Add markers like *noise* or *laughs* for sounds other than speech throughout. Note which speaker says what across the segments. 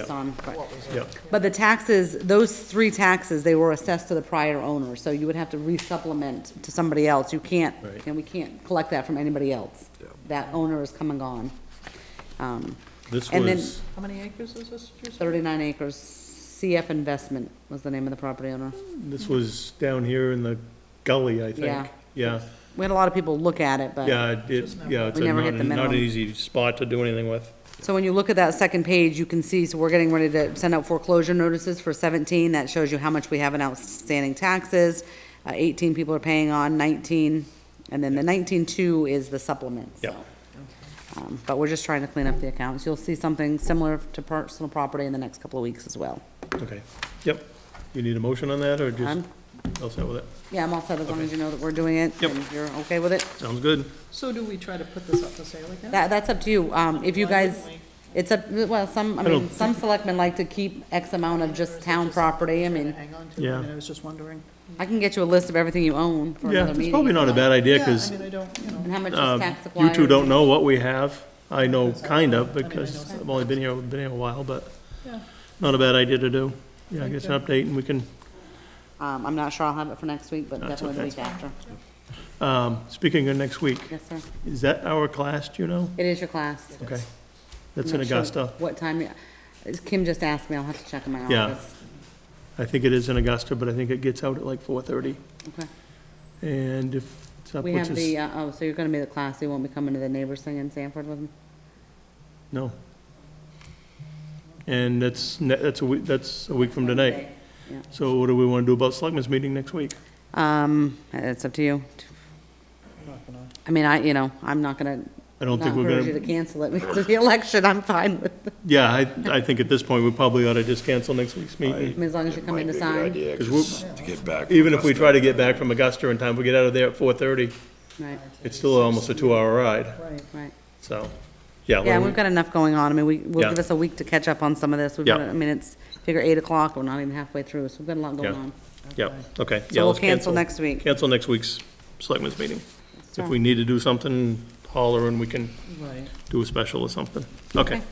Speaker 1: It's on, correct.
Speaker 2: Yep.
Speaker 1: But the taxes, those three taxes, they were assessed to the prior owner, so you would have to resupplement to somebody else. You can't,
Speaker 2: Right.
Speaker 1: and we can't collect that from anybody else. That owner is come and gone. Um,
Speaker 2: This
Speaker 1: And then-
Speaker 2: was,
Speaker 3: How many acres is this? did you say?
Speaker 1: Thirty-nine acres, CF Investment was the name of the property owner.
Speaker 2: this was down here in the gully, I
Speaker 1: Yeah.
Speaker 2: think. Yeah,
Speaker 1: We had a lot of people look at it, but,
Speaker 2: yeah, it, yeah, it's
Speaker 1: We
Speaker 2: a
Speaker 1: never
Speaker 2: not,
Speaker 1: hit the
Speaker 2: an- not
Speaker 1: minimum.
Speaker 2: an easy spot to do anything with.
Speaker 1: so when you look at that second page, you can see, so we're getting ready to send out foreclosure notices for seventeen. That shows you how much we have in outstanding taxes. Uh, eighteen people are paying on, nineteen, and then the nineteen-two is the supplement,
Speaker 2: Yep.
Speaker 1: so. Um, But we're just trying to clean up the accounts. You'll see something similar to personal property in the next couple of weeks as well.
Speaker 2: Okay, yep. You need a motion on that, or just,
Speaker 1: Um,
Speaker 2: I'll set with it?
Speaker 1: Yeah, I'm all set as long as you know that we're doing it.
Speaker 2: Yep.
Speaker 1: and You're okay with it?
Speaker 2: Sounds good.
Speaker 3: So do we try to put this up for sale again?
Speaker 1: That, that's up to you. Um, if you
Speaker 3: Why
Speaker 1: guys,
Speaker 3: wouldn't
Speaker 1: it's up, well, some, I
Speaker 2: don't
Speaker 1: mean, some selectmen like to keep X amount of just town property. I mean,
Speaker 3: Hang on to it,
Speaker 2: Yeah.
Speaker 3: I mean, I was just wondering.
Speaker 1: I can get you a list of everything you own for
Speaker 2: Yeah,
Speaker 1: another
Speaker 2: it's
Speaker 1: meeting.
Speaker 2: probably not a bad idea,
Speaker 3: Yeah,
Speaker 2: because
Speaker 3: I mean, I don't, you
Speaker 1: And
Speaker 3: know,
Speaker 1: how much is
Speaker 2: Um,
Speaker 1: tax acquired?
Speaker 2: You two don't know what we have. I know,
Speaker 3: Because I-
Speaker 2: kind
Speaker 3: I
Speaker 2: of,
Speaker 3: mean, I
Speaker 2: because
Speaker 3: know
Speaker 2: I've only been here, been here a while, but
Speaker 3: yeah,
Speaker 2: not a bad idea to do. Yeah, I
Speaker 3: Thank
Speaker 2: guess
Speaker 3: you.
Speaker 2: an update, and we can,
Speaker 1: Um, I'm not sure I'll have it for next week, but
Speaker 2: That's
Speaker 1: definitely the
Speaker 2: okay.
Speaker 1: week after.
Speaker 2: um, speaking of next week,
Speaker 1: Yes, sir.
Speaker 2: is that our class, do you know?
Speaker 1: It is your class.
Speaker 2: Okay. That's in
Speaker 1: I'm not sure
Speaker 2: Augusta.
Speaker 1: What time, you- Kim just asked me, I'll have to check in my
Speaker 2: Yeah.
Speaker 1: office.
Speaker 2: I think it is in Augusta, but I think it gets out at like four-thirty.
Speaker 1: Okay.
Speaker 2: And if it's up,
Speaker 1: We
Speaker 2: which
Speaker 1: have the,
Speaker 2: is,
Speaker 1: uh, oh, so you're gonna be the class, you won't be coming to the neighbors thing in Sanford with them?
Speaker 2: no. And that's, ne- that's a week, that's a week from tonight.
Speaker 1: Yeah.
Speaker 2: So what do we want to do about Selectmen's meeting next week?
Speaker 1: Um, it's up to you.
Speaker 3: not gonna.
Speaker 1: I mean, I, you know, I'm not gonna,
Speaker 2: I
Speaker 1: not
Speaker 2: don't think we're
Speaker 1: encourage you
Speaker 2: gonna,
Speaker 1: to cancel it *laughs* because of the election, I'm fine with it.
Speaker 2: yeah, I, I think at this point, we probably ought to just cancel next week's meeting.
Speaker 1: I mean, As long as you
Speaker 4: It
Speaker 1: come
Speaker 4: might
Speaker 1: in to
Speaker 4: be a good
Speaker 1: sign.
Speaker 4: idea,
Speaker 2: 'Cause
Speaker 4: 'cause to get back.
Speaker 2: Even if we try to get back from Augusta in time, we get out of there at four thirty,
Speaker 1: Right,
Speaker 2: it's still almost a two-hour ride,
Speaker 3: Right.
Speaker 1: right.
Speaker 2: so, yeah.
Speaker 1: Yeah,
Speaker 2: let me-
Speaker 1: we've got enough going on. I mean, we, will
Speaker 2: Yeah.
Speaker 1: give us a week to catch up on some of this. We've
Speaker 2: Yeah.
Speaker 1: got, I mean, it's, figure eight o'clock, we're not even halfway through, so we've got a lot going
Speaker 2: Yeah.
Speaker 1: on.
Speaker 2: Yeah, okay. yeah,
Speaker 1: So we'll
Speaker 2: let's
Speaker 1: cancel next week.
Speaker 2: Cancel next week's Selectmen's meeting. If
Speaker 1: Sure.
Speaker 2: we need to do something, holler and we can
Speaker 3: Right.
Speaker 2: do a special or something. Okay.
Speaker 1: Okay.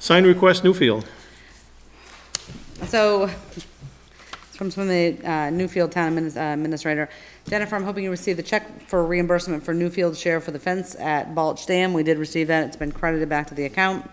Speaker 2: Sign request, Newfield.
Speaker 1: So, it's from some of the uh, Newfield Town adminis- uh, Administrator. Jennifer, I'm hoping you received the check for reimbursement for Newfield share for the fence at Balch Dam. We did receive that. It's been credited back to the account.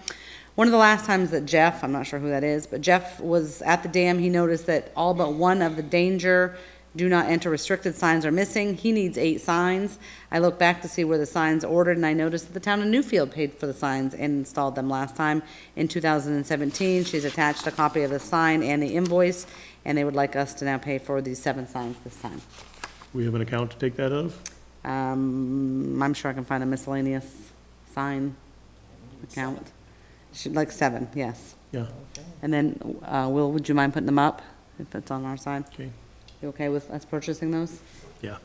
Speaker 1: One of the last times that Jeff, I'm not sure who that is, but Jeff was at the dam, he noticed that all but one of the danger do not enter restricted signs are missing. He needs eight signs. I looked back to see where the signs ordered and I noticed that the town of Newfield paid for the signs and installed them last time in two thousand and seventeen. She's attached a copy of the sign and the invoice, and they would like us to now pay for these seven signs this time.
Speaker 2: We have an account to take that out of?
Speaker 1: Um, I'm sure I can find a miscellaneous sign account. Should, like seven, yes.
Speaker 2: Yeah,
Speaker 1: And then, uh, Will, would you mind putting them up if that's on our side?
Speaker 2: okay,
Speaker 1: You okay with us purchasing those?
Speaker 2: yeah.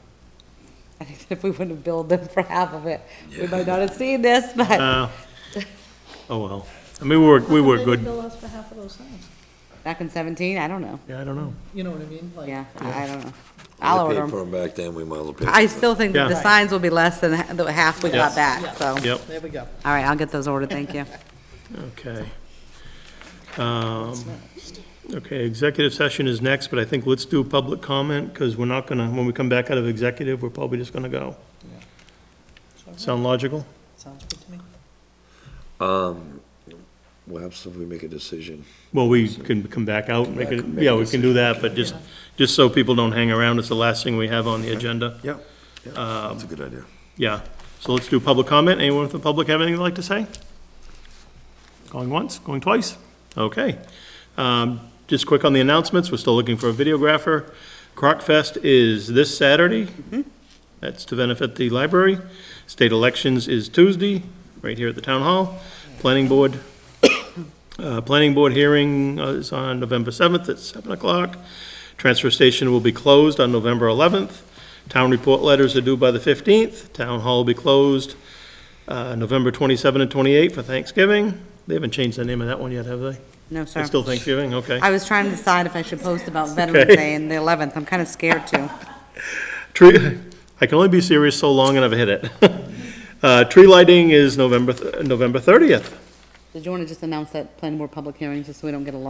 Speaker 1: *laughs* I think if we wouldn't have billed them for half of it, we might not have seen this, *laughs* but
Speaker 2: Uh, Oh, well. I mean, we were, we were
Speaker 3: They
Speaker 2: good.
Speaker 3: bill us for half of those things,
Speaker 1: back in seventeen, I don't know.
Speaker 2: Yeah, I don't know.
Speaker 3: you know what I mean? Like,
Speaker 1: Yeah, I I don't know. I'll order
Speaker 4: Paid for
Speaker 1: them.
Speaker 4: 'em back then, we might as well pay. for
Speaker 1: I
Speaker 4: 'em.
Speaker 1: still think that the
Speaker 2: Yeah.
Speaker 1: signs will be less than ha- the half we got
Speaker 2: Yes.
Speaker 1: back, so.
Speaker 2: Yep,
Speaker 3: There we go.
Speaker 1: All right, I'll get those ordered, thank you.
Speaker 2: okay. Um, Okay, executive session is next, but I think let's do public comment, because we're not gonna, when we come back out of executive, we're probably just gonna go. Sound logical?
Speaker 3: Sounds good to me.
Speaker 4: Perhaps if we make a decision.
Speaker 2: Well, we can come back out and make it,
Speaker 4: Back, make
Speaker 2: yeah,
Speaker 4: a
Speaker 2: we can do that, but just, just so people don't hang around, it's the last thing we have on the agenda.
Speaker 4: Yep. That's a good idea.
Speaker 2: Yeah, so let's do public comment. Anyone from the public have anything they'd like to say? Going once, going twice? Okay. Um, Just quick on the announcements, we're still looking for a videographer. Croc Fest is this Saturday. That's to benefit the library. State elections is Tuesday, right here at the town hall. Planning board, *coughs* uh, planning board hearing uh, is on November 7th at 7 o'clock. Transfer station will be closed on November 11th. Town report letters are due by the 15th. Town hall will be closed uh, November 27 and 28 for Thanksgiving. They haven't changed the name of that one yet, have they?
Speaker 1: No, sir.
Speaker 2: It's still Thanksgiving, okay.
Speaker 1: I was trying to decide if I should post
Speaker 2: *laughs*
Speaker 1: about Veterans
Speaker 2: Okay.
Speaker 1: Day and the eleventh. I'm kind of scared
Speaker 2: *laughs*
Speaker 1: too.
Speaker 2: Tree, *laughs* I can only be serious *laughs* so long and I've hit it. Uh, Tree lighting is November, th- November 30th.
Speaker 1: Did you want to just announce that planning board public hearing, just so we don't get a